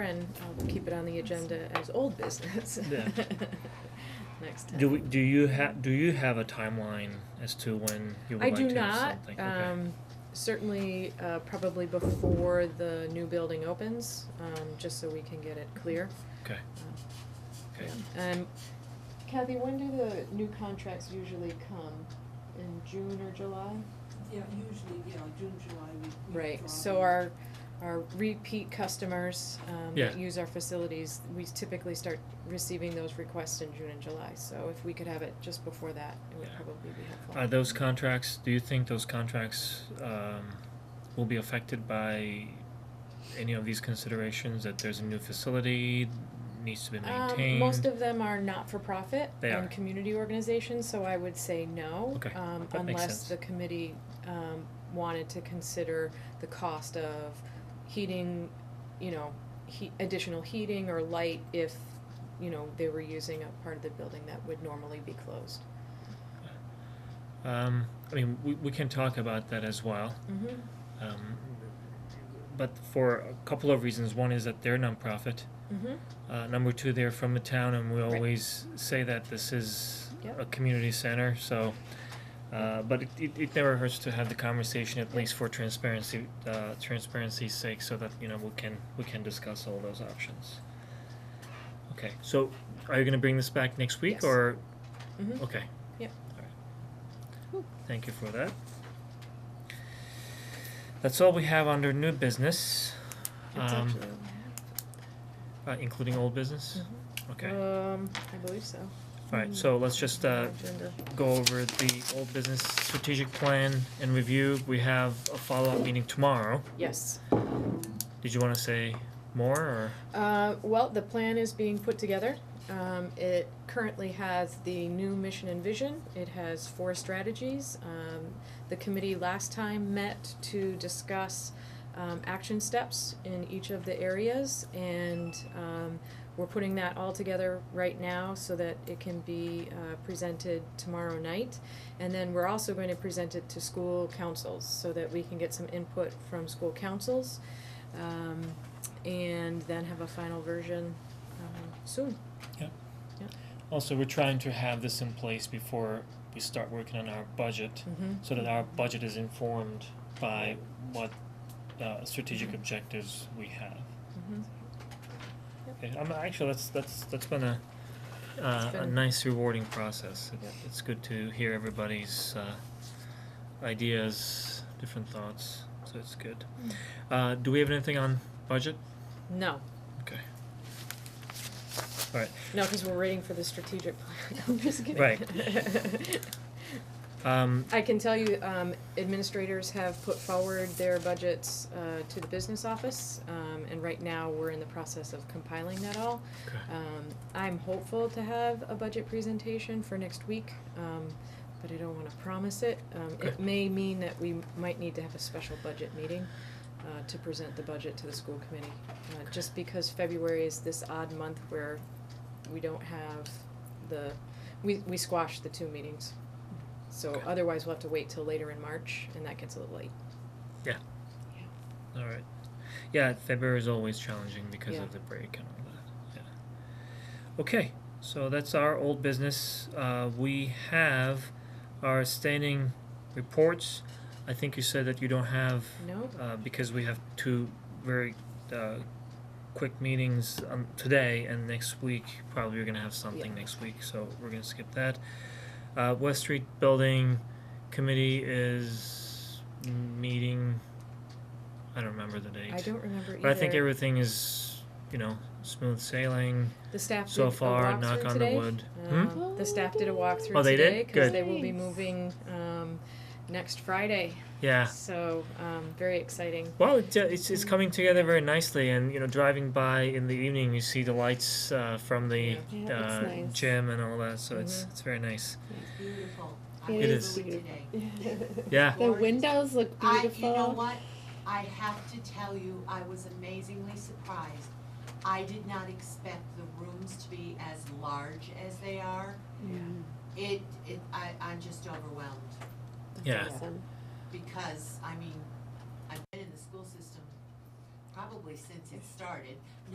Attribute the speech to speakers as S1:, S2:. S1: And I'll keep it on the agenda as old business.
S2: Yeah.
S1: Next time.
S2: Do we, do you have, do you have a timeline as to when you would
S1: I
S2: like
S1: do
S2: to have
S1: not,
S2: something? Okay.
S1: um, certainly, uh, probably before the new building opens, um, just so we can get it clear.
S2: Okay. Okay.
S1: Um, Kathy, when do the new contracts usually come? In June or July?
S3: Yeah, usually, yeah, June, July, we, we
S1: Right,
S3: drop
S1: so
S3: them.
S1: our, our repeat customers, um,
S2: Yeah.
S1: that use our facilities, we typically start receiving those requests in June and July, so if we could have it just before that, it would
S2: Yeah.
S1: probably be helpful.
S2: Are those contracts, do you think those contracts, um, will be affected by any of these considerations, that there's a new facility, needs to be
S1: Um,
S2: maintained?
S1: most of them are not-for-profit
S2: They
S1: and
S2: are.
S1: community organizations, so I would say no.
S2: Okay,
S1: Um,
S2: that makes
S1: unless
S2: sense.
S1: the committee, um, wanted to consider the cost of heating, you know, he, additional heating or light if, you know, they were using a part of the building that would normally be closed.
S2: Um, I mean, we, we can talk about that as well.
S1: Mm-hmm.
S2: Um, but for a couple of reasons. One is that they're nonprofit.
S1: Mm-hmm.
S2: Uh, number two, they're from the town, and we
S1: Right.
S2: always say that this is
S1: Yep.
S2: a community center. So, uh, but it, it, it never hurts to have the conversation at least for transparency uh, transparency's sake, so that you know we can we can discuss all those options. Okay, so are you going to bring this back next week
S1: Yes.
S2: or?
S1: Mhm.
S2: Okay.
S1: Yep.
S2: All right. Thank you for that. That's all we have under new business,
S1: That's
S2: Um,
S1: actually,
S2: uh, including old business. Okay.
S1: um, I believe so.
S2: Alright, so let's just uh
S1: Agenda.
S2: go over the old business strategic plan and review. We have a follow-up meeting tomorrow.
S1: Yes.
S2: Did you wanna say more or?
S1: Uh, well, the plan is being put together. Um, it currently has the new mission and vision. It has four strategies. Um, the committee last time met to discuss um, action steps in each of the areas, and um, we're putting that all together right now so that it can be uh, presented tomorrow night. And then we're also going to present it to school councils so that we can get some input from school councils. Um, and then have a final version um, soon.
S2: Also, we're trying to have this in place before we start working on our budget,
S1: Mm-hmm.
S2: so that our budget is informed by what uh strategic objectives we have.
S1: Mm-hmm.
S2: Okay, I'm actually, that's that's that's been a uh a
S1: been-
S2: nice rewarding process. It- It's good to hear everybody's uh ideas, different thoughts, so it's good. Uh do we have anything on budget?
S1: No,
S2: Okay. Alright,
S1: no, because we're waiting for the strategic plan. I'm just kidding.
S2: um
S1: I can tell you, um, administrators have put forward their budgets uh, to the business office, um, and right now we're in the process of compiling that all.
S2: okay.
S1: Um, I'm hopeful to have a budget presentation for next week, um, but I don't wanna promise it. Um, it
S2: Okay.
S1: may mean that we might need to have a special budget meeting, uh, to present the budget to the school committee. Uh, just because February is this odd month where we don't have the, we, we squash the two meetings. So
S2: Okay.
S1: otherwise we'll have to wait till later in March, and that gets a little late.
S2: Alright. Yeah, February is always challenging because
S1: Yeah.
S2: of the break and all that, yeah. Okay, so that's our old business. Uh we have our standing reports. I think you said that you don't have
S1: No?
S2: uh because we have two very uh quick meetings um today and next week, probably we're gonna have something next week, so we're gonna skip that. Uh West Street Building Committee is meeting, I don't remember the date.
S1: I don't remember either.
S2: But I think everything is, you know, smooth sailing
S1: The staff did a
S2: so far,
S1: walkthrough
S2: knock on the
S1: today.
S2: wood. Hmm?
S1: Um, the staff did a walkthrough
S2: Oh, they did?
S1: today because
S2: Good.
S1: they will be
S4: Nice.
S1: moving um, next Friday.
S2: Yeah.
S1: So um, very exciting.
S2: Well, it, uh, it's it's coming together very nicely, and you know, driving by in the evening, you see the lights uh, from the
S4: Yeah, that's
S2: uh,
S4: nice.
S2: gym and all that. So it's it's very nice.
S3: It's beautiful. I
S4: It
S3: drove
S2: is
S3: today.
S2: Yeah.
S4: The windows look
S3: I, you know
S4: beautiful.
S3: what, I have to tell you, I was amazingly surprised. I did not expect the rooms to be as large as they are. It, it, I, I'm just overwhelmed,
S2: Yeah.
S4: Awesome.
S3: because, I mean, I've been in the school system probably since it started,